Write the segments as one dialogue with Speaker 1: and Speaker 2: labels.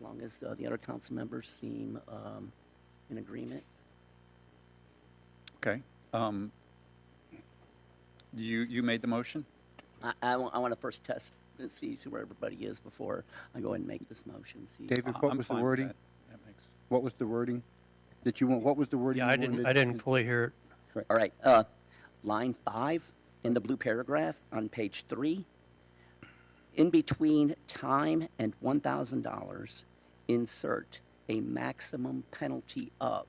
Speaker 1: long as uh, the other council members seem um, in agreement.
Speaker 2: Okay. Um, You, you made the motion?
Speaker 1: I, want to first test and see, see where everybody is before I go ahead and make this motion. See.
Speaker 3: David,
Speaker 2: I-
Speaker 3: what
Speaker 2: I'm
Speaker 3: was the
Speaker 2: fine with
Speaker 3: wording?
Speaker 2: that. That makes-
Speaker 3: What was the wording? That you want, what was the wording?
Speaker 4: Yeah,
Speaker 3: you
Speaker 4: I didn't,
Speaker 3: wanted?
Speaker 4: I didn't fully hear it.
Speaker 1: All right, uh, line five in the blue paragraph on page three. In between time and one thousand dollars, insert a maximum penalty of.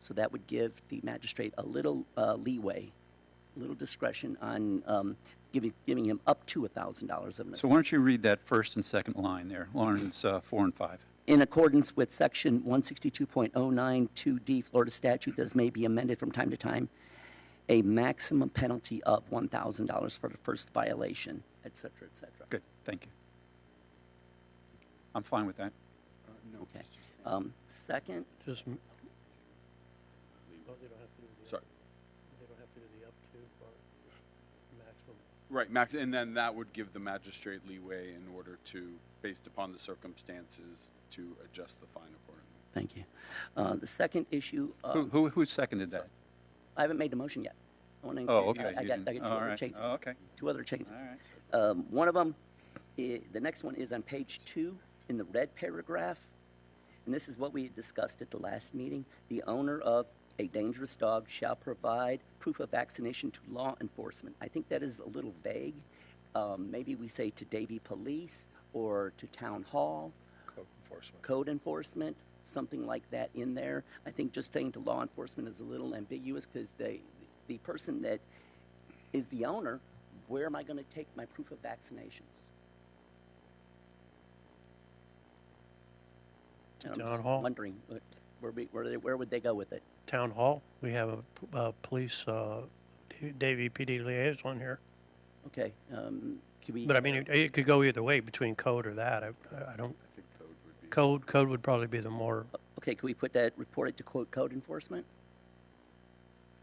Speaker 1: So that would give the magistrate a little, uh, leeway, a little discretion on, um, giving, giving him up to a thousand dollars of an
Speaker 2: So why don't you read that first and second line there, Lawrence uh, 4 and 5?
Speaker 1: in accordance with Section 162.092D Florida statute, as may be amended from time to time, a maximum penalty of $1,000 for the first violation, et cetera, et cetera.
Speaker 2: Good, thank you. I'm fine with that.
Speaker 1: Okay. Um, Second,
Speaker 4: Just, m-
Speaker 5: Sorry.
Speaker 4: they don't have to do the up to or maximum.
Speaker 5: Right, max, and then that would give the magistrate leeway in order to, based upon the circumstances, to adjust the fine accordingly.
Speaker 1: thank you. Uh, The second issue, uh,
Speaker 2: Who, who, who seconded that?
Speaker 1: I haven't made the motion yet. I wanna-
Speaker 2: Oh, okay,
Speaker 1: I- I
Speaker 2: you
Speaker 1: got, I
Speaker 2: didn't.
Speaker 1: got two
Speaker 2: All
Speaker 1: other
Speaker 2: right.
Speaker 1: changes.
Speaker 2: Oh, okay.
Speaker 1: Two other changes.
Speaker 2: All right.
Speaker 1: Um, One of them, the next one is on page two in the red paragraph. And this is what we discussed at the last meeting. The owner of a dangerous dog shall provide proof of vaccination to law enforcement. I think that is a little vague. Um, Maybe we say to Davie Police or to Town Hall,
Speaker 5: Code enforcement.
Speaker 1: code enforcement, something like that in there. I think just saying to law enforcement is a little ambiguous because they, the person that is the owner, where am I going to take my proof of vaccinations? And I'm
Speaker 4: Town
Speaker 1: just
Speaker 4: hall?
Speaker 1: Wondering, uh, where, we- where, they- where would they go with it?
Speaker 4: Town Hall, we have a, p- uh police, uh, D- Davie PD liaison here.
Speaker 1: Okay, um, could we?
Speaker 4: But I mean, it, it could go either way between code or that. I, I don't,
Speaker 5: I think code would be.
Speaker 4: code, code would probably be the more,
Speaker 1: Okay, could we put that, report it to quote code enforcement?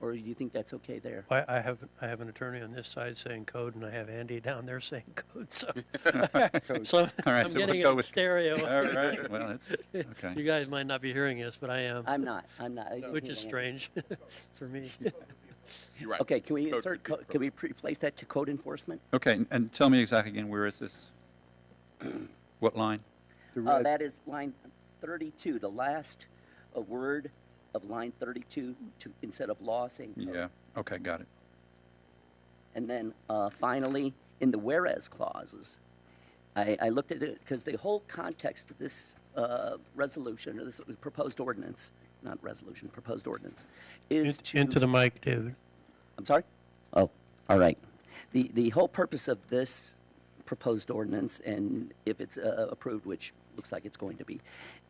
Speaker 1: Or do you think that's okay there?
Speaker 4: I, I have, I have an attorney on this side saying code and I have Andy down there saying code, so. So
Speaker 2: All right,
Speaker 4: I'm
Speaker 2: so we'll
Speaker 4: getting
Speaker 2: go
Speaker 4: it
Speaker 2: with-
Speaker 4: stereo.
Speaker 2: All right, well, that's,
Speaker 4: You
Speaker 2: okay.
Speaker 4: guys might not be hearing this, but I am,
Speaker 1: I'm not, I'm not. I didn't
Speaker 4: which
Speaker 1: hear
Speaker 4: is
Speaker 1: that.
Speaker 4: strange for me.
Speaker 5: You're right.
Speaker 1: Okay, can we
Speaker 5: Code
Speaker 1: insert,
Speaker 5: would be
Speaker 1: co- can we pre- replace that to code enforcement? Uh,
Speaker 2: Okay, and- and tell me exactly again, where is this? What line?
Speaker 3: The
Speaker 1: Uh,
Speaker 3: red-
Speaker 1: that is line thirty-two, the last uh, word of line thirty-two to, instead of law saying code.
Speaker 2: Yeah, okay, got it.
Speaker 1: And then uh, finally, in the whereas clauses, I, I looked at it because the whole context of this uh, resolution or this proposed ordinance, not resolution, proposed ordinance, is
Speaker 4: Int-
Speaker 1: to.
Speaker 4: Into the mic, David.
Speaker 1: I'm sorry? Oh, all right. The, the whole purpose of this proposed ordinance, and if it's uh, approved, which looks like it's going to be,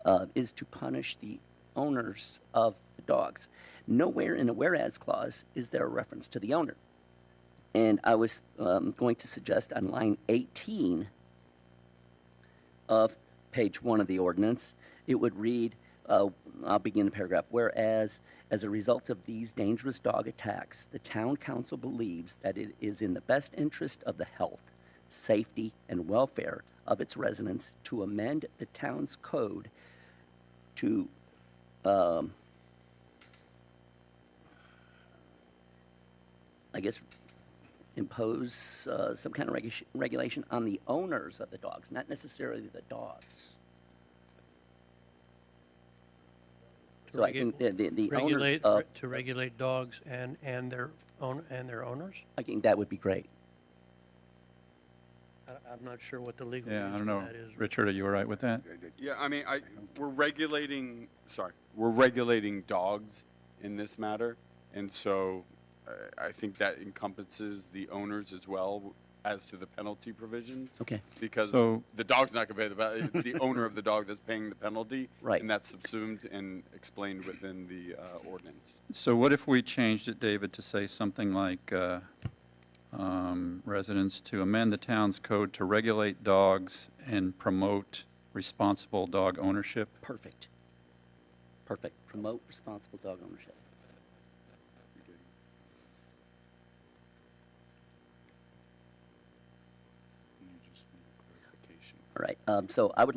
Speaker 1: uh, is to punish the owners of the dogs. Nowhere in a whereas clause is there a reference to the owner. And I was um, going to suggest on line 18 of page one of the ordinance, it would read, uh, I'll begin the paragraph, whereas, as a result of these dangerous dog attacks, the town council believes that it is in the best interest of the health, safety, and welfare of its residents to amend the town's code to, um, I guess, impose uh, some kind of regu- regulation on the owners of the dogs, not necessarily the dogs.
Speaker 4: To
Speaker 1: So I
Speaker 4: regu-
Speaker 1: think the, the, the owners
Speaker 4: regulate
Speaker 1: of,
Speaker 4: to regulate dogs and and their own and their owners.
Speaker 1: I think that would be great.
Speaker 4: I, I'm not sure what the legal
Speaker 2: Yeah, I
Speaker 4: means
Speaker 2: don't
Speaker 4: for
Speaker 2: know.
Speaker 4: that is.
Speaker 2: Richard, are you all right with that?
Speaker 5: Yeah, I mean, I, we're regulating, sorry, we're regulating dogs in this matter. And so uh, I, I think that encompasses the owners as well as to the penalty provisions.
Speaker 1: Okay.
Speaker 5: Because
Speaker 2: So-
Speaker 5: the dog's not gonna pay the, pe- it's the owner of the dog that's paying the penalty.
Speaker 1: Right.
Speaker 5: And that's subsumed and explained within the uh, ordinance.
Speaker 2: So what if we changed it, David, to say something like, uh, um, residents to amend the town's code to regulate dogs and promote responsible dog ownership?
Speaker 1: Perfect. Perfect. Promote responsible dog ownership. All right. Um, so I would